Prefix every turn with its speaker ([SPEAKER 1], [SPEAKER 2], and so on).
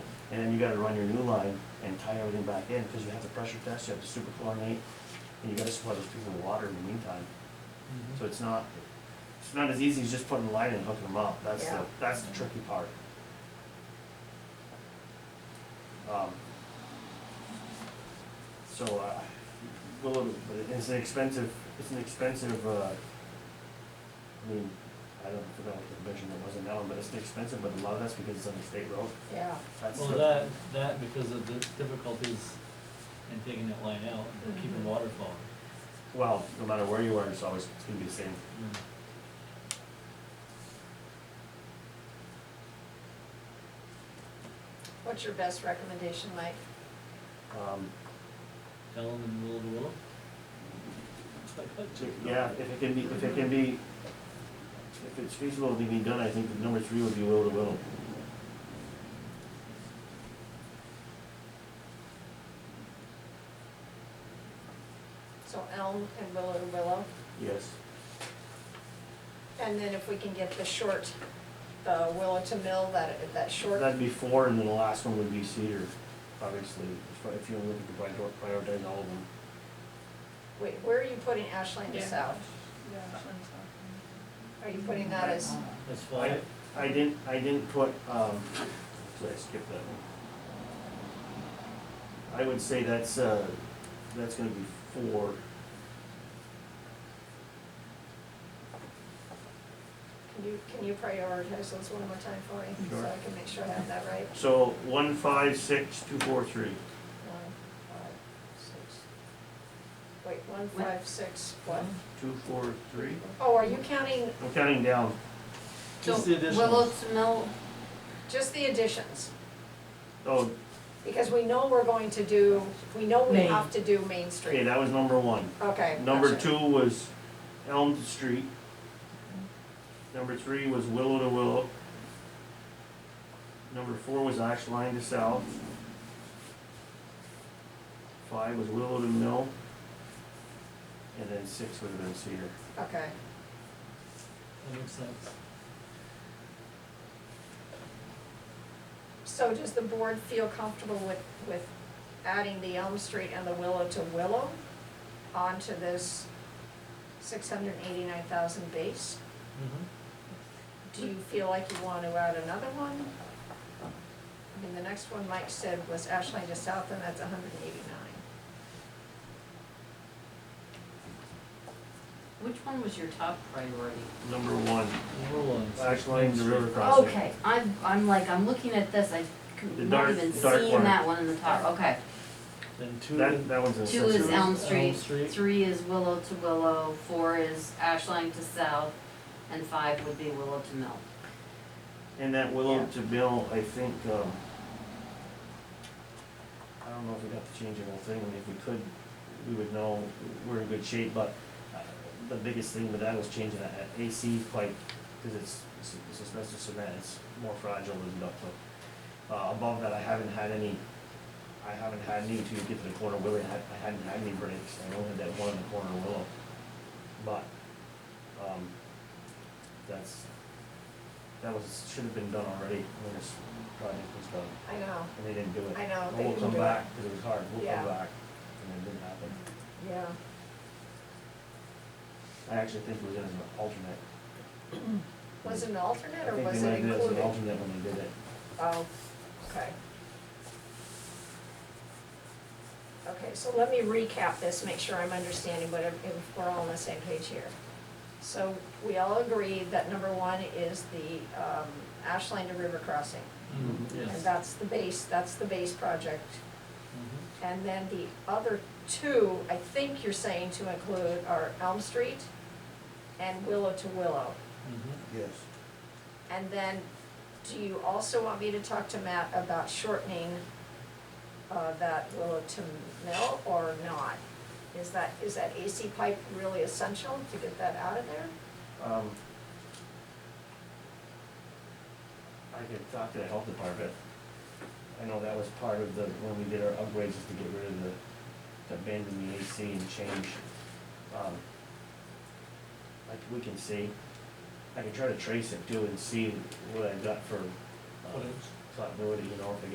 [SPEAKER 1] And then you gotta run your new line and tie everything back in, because you have to pressure test, you have to super chlorinate, and you gotta supply those people with water in the meantime. So it's not, it's not as easy as just putting a line in and hooking them up, that's the,
[SPEAKER 2] Yeah.
[SPEAKER 1] that's the tricky part. Um, So, uh, well, but it's an expensive, it's an expensive, uh, I mean, I don't forgot what the measurement was in that one, but it's expensive, but a lot of that's because it's on the state road,
[SPEAKER 2] yeah,
[SPEAKER 1] that's.
[SPEAKER 3] Well,
[SPEAKER 1] the-
[SPEAKER 3] that, that because of the difficulties in taking that line out and keeping water flowing.
[SPEAKER 1] Well, no matter where you are, it's always, it's gonna be the same.
[SPEAKER 3] Mm.
[SPEAKER 2] what's your best recommendation, Mike?
[SPEAKER 1] Um,
[SPEAKER 3] Tell them in the middle of the world.
[SPEAKER 1] Yeah, if it can be, if it can be, if it's feasible to be done, I think the number three would be will to will.
[SPEAKER 2] So Elm and Willow to Willow,
[SPEAKER 1] Yes.
[SPEAKER 2] and then if we can get the short, the Willow to Mill, that, that short,
[SPEAKER 1] That'd be four, and then the last one would be cedar, obviously, if- if you look at the prior- prioritize all of them.
[SPEAKER 2] wait, where are you putting Ashland to
[SPEAKER 4] Yeah.
[SPEAKER 2] South? Are you putting that as,
[SPEAKER 1] uh,
[SPEAKER 3] That's why,
[SPEAKER 1] I, I didn't, I didn't put, um, actually, I skipped that one. I would say that's, uh, that's gonna be four.
[SPEAKER 2] can you, can you prioritize those one more time for me? So I
[SPEAKER 1] Sure.
[SPEAKER 2] can make sure I have that right.
[SPEAKER 1] So one, five, six, two, four, three.
[SPEAKER 2] One, five, six. Wait, one, five, six, what?
[SPEAKER 1] Two, four, three?
[SPEAKER 2] Oh, are you counting
[SPEAKER 1] I'm counting down.
[SPEAKER 3] Just the additional.
[SPEAKER 4] Willow's Mill,
[SPEAKER 2] just the additions?
[SPEAKER 1] Oh,
[SPEAKER 2] Because we know we're going to do, we know we
[SPEAKER 5] Main.
[SPEAKER 2] have to do Main
[SPEAKER 1] okay,
[SPEAKER 2] Street.
[SPEAKER 1] that was number one.
[SPEAKER 2] Okay.
[SPEAKER 1] Number
[SPEAKER 2] gotcha.
[SPEAKER 1] two was Elm Street. Number three was Willow to Willow. Number four was Ash Line to South. Five was Willow to Mill. And then six would have been Cedar.
[SPEAKER 2] Okay,
[SPEAKER 3] that makes sense.
[SPEAKER 2] so does the board feel comfortable with, with adding the Elm Street and the Willow to Willow onto this six hundred and eighty-nine thousand base?
[SPEAKER 3] Mm-hmm.
[SPEAKER 2] Do you feel like you want to add another one? I mean, the next one Mike said was Ashland to South, and that's hundred and eighty-nine.
[SPEAKER 4] which one was your top priority?
[SPEAKER 1] Number one,
[SPEAKER 3] Number one.
[SPEAKER 1] Ash Line to River Crossing.
[SPEAKER 4] Okay, I'm, I'm like, I'm looking at this, I
[SPEAKER 1] The
[SPEAKER 4] could not
[SPEAKER 1] dark-
[SPEAKER 4] even
[SPEAKER 1] dark
[SPEAKER 4] seeing
[SPEAKER 1] one.
[SPEAKER 4] that one in the top, okay.
[SPEAKER 3] Then two,
[SPEAKER 1] That,
[SPEAKER 3] then
[SPEAKER 1] that one's a.
[SPEAKER 4] Two is Elm Street,
[SPEAKER 3] Street.
[SPEAKER 4] three is Willow to Willow, four is Ashline to South, and five would be Willow to Mill.
[SPEAKER 1] And that Willow to Mill, I think, um, I don't know if we'd have to change the whole thing, I mean, if we could, we would know we're in good shape, but uh, the biggest thing with that was changing that that AC pipe, cause it's, it's- it's asbestos cement, it's more fragile than ductile. Uh, above that, I haven't had any, I haven't had any to get to the corner willow, I had- I hadn't had any breaks, I only had that one in the corner willow. But, um, that's, that was, should have been done already when this project was done,
[SPEAKER 2] I know,
[SPEAKER 1] and they didn't do it.
[SPEAKER 2] I know,
[SPEAKER 1] And
[SPEAKER 2] they
[SPEAKER 1] We'll
[SPEAKER 2] didn't
[SPEAKER 1] come
[SPEAKER 2] do it.
[SPEAKER 1] back, because it was hard, we'll
[SPEAKER 2] Yeah.
[SPEAKER 1] come back, and it didn't happen.
[SPEAKER 2] yeah.
[SPEAKER 1] I actually think it was as an alternate.
[SPEAKER 2] Was it an alternate, or
[SPEAKER 1] I think they might
[SPEAKER 2] was it
[SPEAKER 1] have did it as an
[SPEAKER 2] included?
[SPEAKER 1] alternate when they did it.
[SPEAKER 2] Oh, okay. Okay, so let me recap this, make sure I'm understanding what, if we're all on the same page here. So we all agreed that number one is the um, Ashland to River Crossing.
[SPEAKER 3] Mhm,
[SPEAKER 2] And
[SPEAKER 3] yes.
[SPEAKER 2] that's the base, that's the base project.
[SPEAKER 3] Mhm.
[SPEAKER 2] And then the other two, I think you're saying to include are Elm Street and Willow to Willow.
[SPEAKER 3] Mhm.
[SPEAKER 1] Yes.
[SPEAKER 2] And then, do you also want me to talk to Matt about shortening uh, that Willow to Mill or not? Is that, is that AC pipe really essential to get that out of there?
[SPEAKER 1] Um, I could talk to the health department. I know that was part of the, when we did our upgrades, is to get rid of the, to abandon the AC and change. um, Like, we can see, I can try to trace it too and see what I got for uh,
[SPEAKER 3] Footage.
[SPEAKER 1] continuity, you know, if I